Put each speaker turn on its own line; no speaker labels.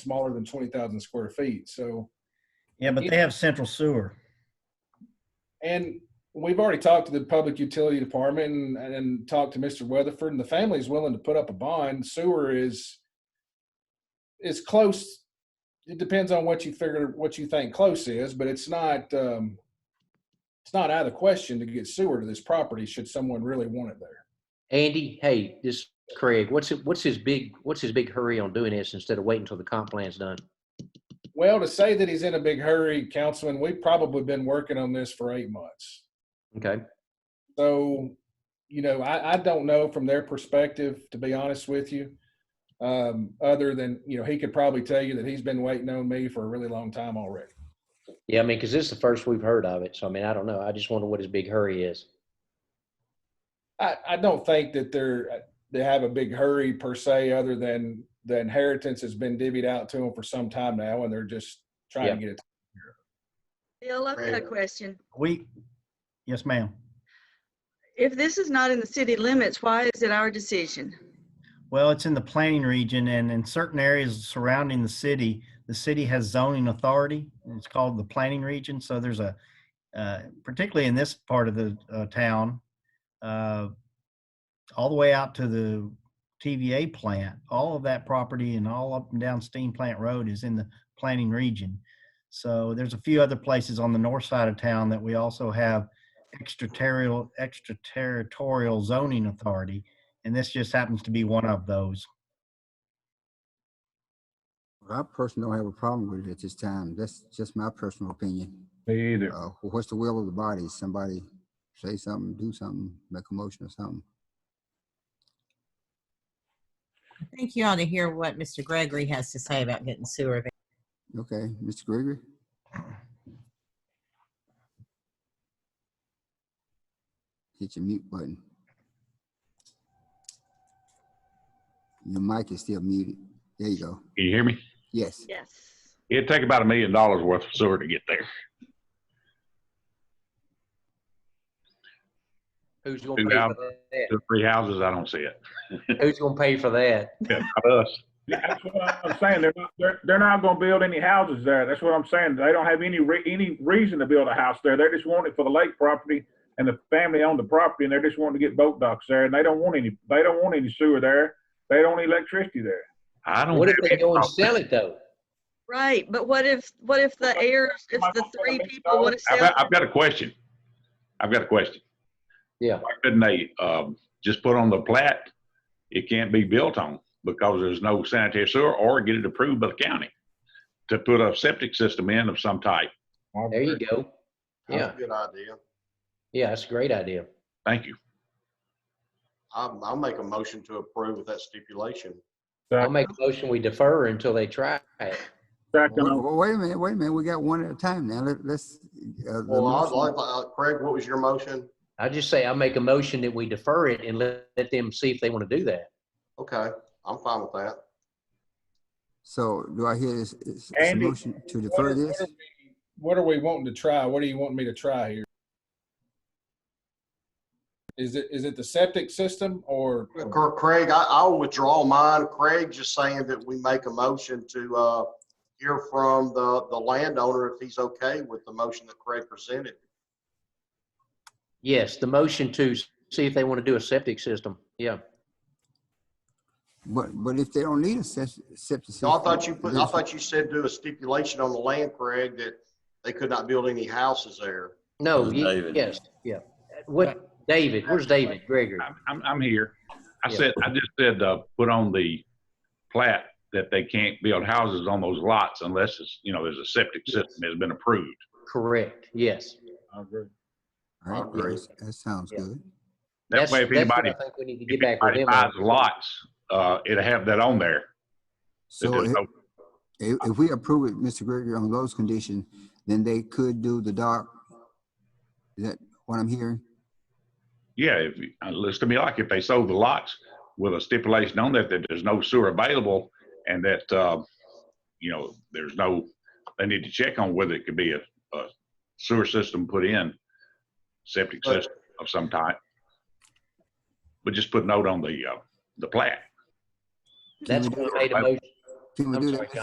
smaller than twenty thousand square feet. So,
Yeah, but they have central sewer.
and we've already talked to the public utility department and, and talked to Mr. Weatherford, and the family is willing to put up a bond. Sewer is is close. It depends on what you figure, what you think close is, but it's not um, it's not out of the question to get sewer to this property should someone really want it there.
Andy, hey, this is Craig. What's it, what's his big what's his big hurry on doing this instead of waiting until the comp plan's done?
Well, to say that he's in a big hurry, Councilman, we've probably been working on this for eight months.
Okay.
So, you know, I, I don't know from their perspective, to be honest with you. Um, other than, you know, he could probably tell you that he's been waiting on me for a really long time already.
Yeah, I mean, because this is the first we've heard of it. So I mean, I don't know. I just wonder what his big hurry is.
I, I don't think that they're, uh, they have a big hurry per se, other than the inheritance has been divvied out to them for some time now, and they're just trying to get it.
Bill, I've got a question.
We, yes, ma'am.
If this is not in the city limits, why is it our decision?
Well, it's in the planning region and in certain areas surrounding the city, the city has zoning authority. and It's called the planning region. So there's a, uh, particularly in this part of the uh, town, uh, all the way out to the TVA plant, all of that property and all up and down Steam Plant Road is in the planning region. So there's a few other places on the north side of town that we also have extraterritorial, extraterritorial zoning authority. And this just happens to be one of those.
I personally don't have a problem with it at this time. That's just my personal opinion.
Me either.
Uh, what's the will of the body? Somebody say something, do something, make a motion or something.
I think you ought to hear what Mr. Gregory has to say about getting sewer. available.
Okay, Mr. Gregory? Hit your mute button. Your mic is still muted. There you go.
Can you hear me?
Yes.
Yes.
It'd take about a million dollars worth of sewer to get there.
Who's gonna pay
Yeah.
for that?
Two, Three houses, I don't see it.
Who's gonna pay for that?
Yeah, Not us.
That's what I'm saying. They're not, they're, they're not gonna build any houses there. That's what I'm saying. They don't have any re- any reason to build a house there. They just want it for the lake property and the family owned the property and they're just wanting to get boat docks there and they don't want any, they don't want any sewer there. They don't want electricity there.
I don't.
What if
have
they
any
go and
problem.
sell it though?
Right, but what if, what if the heirs, if the three people want to
I've
sell?
got, I've got a question. I've got a question.
Yeah.
Why couldn't they, um, just put on the plat? It can't be built on because there's no sanitary sewer or get it approved by the county to put a septic system in of some type.
There you go. Yeah.
That's a good idea.
Yeah, that's a great idea.
Thank you.
I'll, I'll make a motion to approve with that stipulation.
I'll make a motion we defer until they try it.
Second,
Wait,
on-
wait a minute, wait a minute. We got one at a time now. Let, let's. uh, the
Well, I'd
motion-
like, uh, Craig, what was your motion?
I just say I make a motion that we defer it and let, let them see if they want to do that.
Okay, I'm fine with that.
So do I hear this, this this
Andy.
motion to defer this?
What are we wanting to try? What do you want me to try here? Is it, is it the septic system or?
Cr- Craig, I, I'll withdraw mine. Craig just saying that we make a motion to, uh, hear from the, the landowner if he's okay with the motion that Craig presented.
Yes, the motion to s- see if they want to do a septic system. Yeah.
But, but if they don't need a sep- septic.
No, I
system,
thought you, put- I
there's-
thought you said do a stipulation on the land, Craig, that they could not build any houses there.
No,
Who's
ye-
David?
yes, yeah. What, David, where's David Gregory?
I'm- I'm, I'm here. I
Yeah.
said, I just said, uh, put on the plat that they can't build houses on those lots unless it's, you know, there's a septic system that's been approved.
Correct, yes.
All right,
I agree.
yes, That sounds
Yeah.
good.
That's-
That way, if
that's what
anybody,
I think we need to get
if
back with
anybody
him.
buys
on.
lots, uh, it'll have that on there. that
So
there's
if,
no-
if if we approve it, Mr. Gregory, on those conditions, then they could do the dock. Is that what I'm hearing?
Yeah, if, you- uh, looks to me like if they sold the lots with a stipulation on that, that there's no sewer available and that, uh, you know, there's no, they need to check on whether it could be a, a sewer system put in, septic
But-
system of some type. But just put note on the, uh, the plat.
That's
Can we
when
do
we made a motion.
Can we
I'm
do
sorry,
that? Mr.